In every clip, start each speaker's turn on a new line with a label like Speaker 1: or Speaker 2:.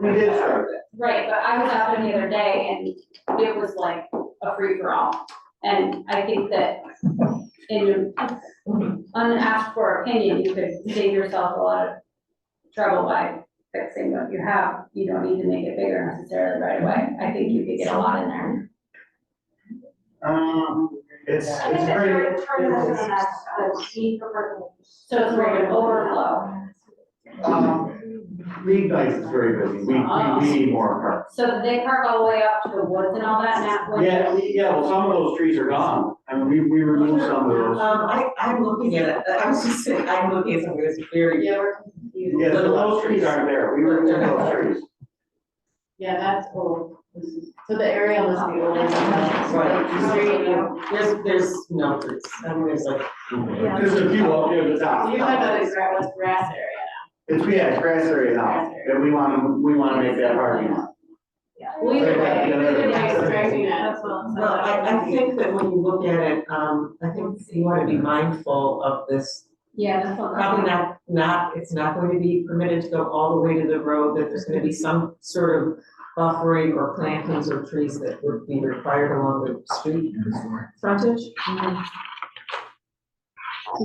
Speaker 1: We did start that.
Speaker 2: Right, but I was out there the other day and it was like a free-for-all. And I think that in an unasked for opinion, you could save yourself a lot of trouble by fixing what you have. You don't need to make it bigger necessarily right away. I think you could get a lot in there.
Speaker 1: Um, it's,
Speaker 3: I
Speaker 1: it's
Speaker 3: think that
Speaker 1: pretty.
Speaker 3: your term
Speaker 1: it
Speaker 3: is
Speaker 1: is-
Speaker 3: an the need for purple.
Speaker 2: So it's more of an overflow.
Speaker 1: Um, League nights is very busy, we, we, we need more parks.
Speaker 2: So that they park all the way up to the woods and all that now. when-
Speaker 1: Yeah, we- yeah, well, some of those trees are gone, I mean, we, we removed some of those.
Speaker 4: Um, I, I'm looking at, it. I was just saying, I'm looking at something that's very.
Speaker 5: Yeah, we're confused.
Speaker 1: Yeah, so those trees aren't there, we removed those trees.
Speaker 5: Yeah, that's old. This is- So the area must be old.
Speaker 4: Right.
Speaker 5: Just very old.
Speaker 4: There's, there's numbers, and there's like,
Speaker 5: Yeah.
Speaker 1: There's a few up near the
Speaker 5: So
Speaker 1: top.
Speaker 5: You're talking about this grass, what's grass area
Speaker 1: It's, yeah, it's grass area now, and we wanna, we wanna make that parking lot.
Speaker 5: now?
Speaker 2: Well, either way,
Speaker 5: Either
Speaker 2: either
Speaker 5: way,
Speaker 2: way,
Speaker 5: it's correcting that, that's what I'm
Speaker 4: well, I, I think that when you look at it, um, I think you wanna be mindful of this.
Speaker 2: Yeah, that's what.
Speaker 4: Probably not, not, it's not going to be permitted to go all the way to the road, that there's gonna be some sort of buffering or plantings or trees that would be required along the street frontage.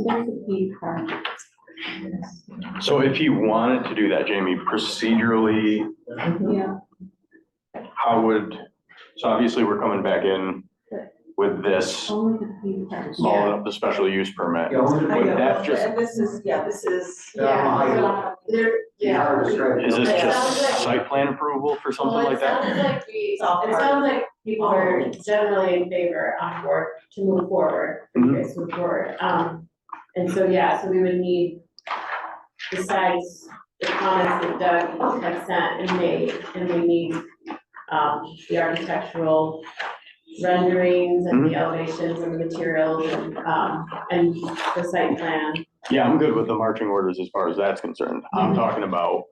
Speaker 2: That's a key part.
Speaker 6: So if he wanted to do that, Jamie, procedurally,
Speaker 2: Yeah,
Speaker 6: how would, so obviously we're coming back in with this,
Speaker 2: only the key part.
Speaker 6: all of the special use permit.
Speaker 1: Yeah, only-
Speaker 4: I
Speaker 6: Would
Speaker 4: know,
Speaker 6: that just-
Speaker 4: and this is, yeah, this is.
Speaker 1: Yeah,
Speaker 5: Yeah, so there,
Speaker 1: Be hard to
Speaker 5: yeah.
Speaker 1: describe.
Speaker 6: Is this
Speaker 5: It sounds
Speaker 6: just
Speaker 5: like-
Speaker 6: site plan approval for something like
Speaker 5: Well, it
Speaker 6: that?
Speaker 5: sounds like we,
Speaker 4: It's all
Speaker 5: it
Speaker 4: part of
Speaker 5: sounds like people are generally in favor on board to move forward,
Speaker 6: Mhm.
Speaker 5: Chris move forward. Um, and so, yeah, so we would need, besides the comments that Doug had sent and made, and we need, um, the architectural renderings and
Speaker 6: Mm-hmm.
Speaker 5: the elevations and the materials, and, um, and the site plan.
Speaker 6: Yeah, I'm good with the marching orders as far as that's concerned.
Speaker 4: Mm-hmm.
Speaker 6: I'm talking about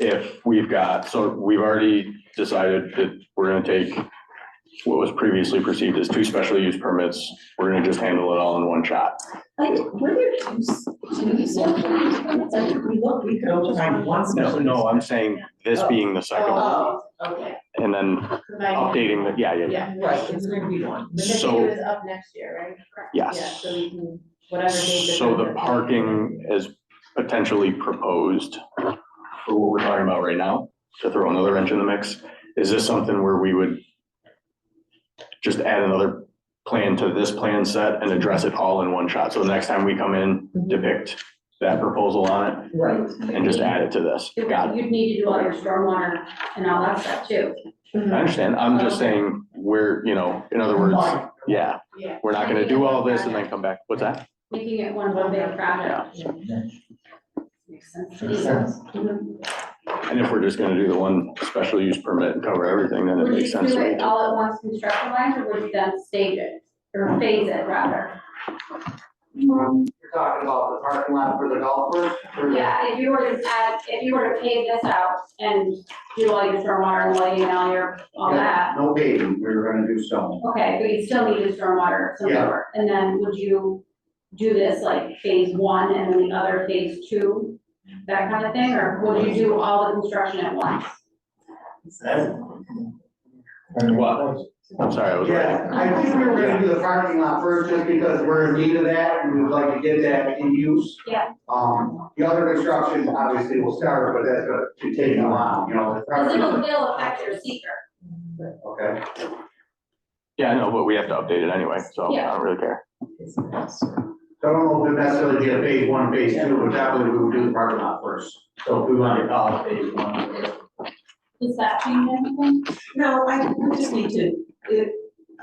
Speaker 6: if we've got, so we've already decided that we're gonna take what was previously perceived as two special use permits, we're gonna just handle it all in one shot.
Speaker 4: Like, were there two, s- two special use permits? I think we looked, we could only find one
Speaker 6: No,
Speaker 4: special use.
Speaker 6: no, I'm saying this being the second one,
Speaker 4: Oh, okay,
Speaker 6: and then
Speaker 5: Providing,
Speaker 6: updating the, yeah, yeah, yeah.
Speaker 5: yeah,
Speaker 4: right, it's gonna be one.
Speaker 5: the
Speaker 6: So-
Speaker 5: video is up next year, right? Yeah,
Speaker 6: Yes.
Speaker 5: so we can, whatever date.
Speaker 6: So the parking is potentially proposed for what we're talking about right now, to throw another wrench in the mix. Is this something where we would just add another plan to this plan set and address it all in one shot? So the next time we come in, depict that proposal on
Speaker 4: Right.
Speaker 6: it and just add it to this. Got it.
Speaker 2: You'd need to do all your stormwater and all that stuff too.
Speaker 5: Mm-hmm.
Speaker 6: I understand. I'm just saying, we're, you know, in other words, yeah,
Speaker 5: Yeah.
Speaker 6: we're not gonna do all this and then come back. What's that?
Speaker 2: Making it one whole big project. Makes sense.
Speaker 1: Makes sense.
Speaker 2: Mhm.
Speaker 6: And if we're just gonna do the one special use permit and cover everything, then it
Speaker 2: Would
Speaker 6: makes
Speaker 2: you
Speaker 6: sense
Speaker 2: do
Speaker 6: to me.
Speaker 2: it all at once construction wise, or would you then stage it, or phase it rather?
Speaker 1: You're talking about the parking lot for the golf course? or the-
Speaker 2: Yeah, if you were to add, if you were to pave this out and do all your stormwater and lighting and all your, all
Speaker 1: Yeah,
Speaker 2: that,
Speaker 1: No paving, we were gonna do stone.
Speaker 2: okay, but you still need a stormwater of some
Speaker 1: Yeah.
Speaker 2: sort. And then would you do this like phase one and then the other phase two, that kind of thing, or would you do all the construction at once?
Speaker 6: What? I'm sorry, I was writing.
Speaker 1: Yeah, I think we were gonna do the parking lot first, just because we're in need of that, and we'd like to get that in use.
Speaker 2: Yeah.
Speaker 1: Um, the other construction obviously will start, but that's gonna be taking a while, you know, the
Speaker 2: Because
Speaker 1: parking
Speaker 2: it'll,
Speaker 1: lot.
Speaker 2: it'll affect your seeker.
Speaker 1: Okay,
Speaker 6: Yeah, I know, but we have to update it anyway, so I
Speaker 2: Yeah.
Speaker 6: don't really care.
Speaker 4: It's a mess.
Speaker 1: so I don't know if it'd necessarily be a phase one, phase two, but definitely we would do the parking lot first. So if we wanted to call it phase one.
Speaker 2: Does that change anything?
Speaker 4: No, I, we just need to, it,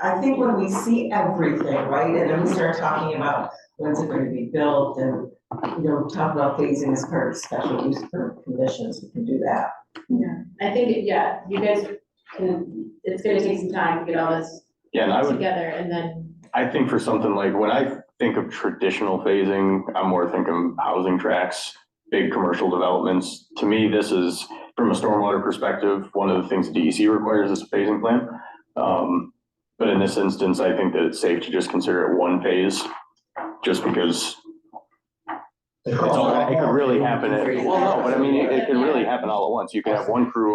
Speaker 4: I think when we see everything, right, and then we start talking about when's it gonna be built and, you know, talk about phasing as part of special use per conditions, we can do that.
Speaker 5: I think, it- yeah, you guys can, it's gonna take some time to get all this
Speaker 6: Yeah, and I would,
Speaker 5: together and then,
Speaker 6: I think for something like, when I think of traditional phasing, I'm more thinking housing tracks, big commercial developments. To me, this is, from a stormwater perspective, one of the things DEC requires is a phasing plan. Um, but in this instance, I think that it's safe to just consider it one phase, just because It's all, it could really happen, at- well, no, but I mean, it, it could really happen all at once, you could have one crew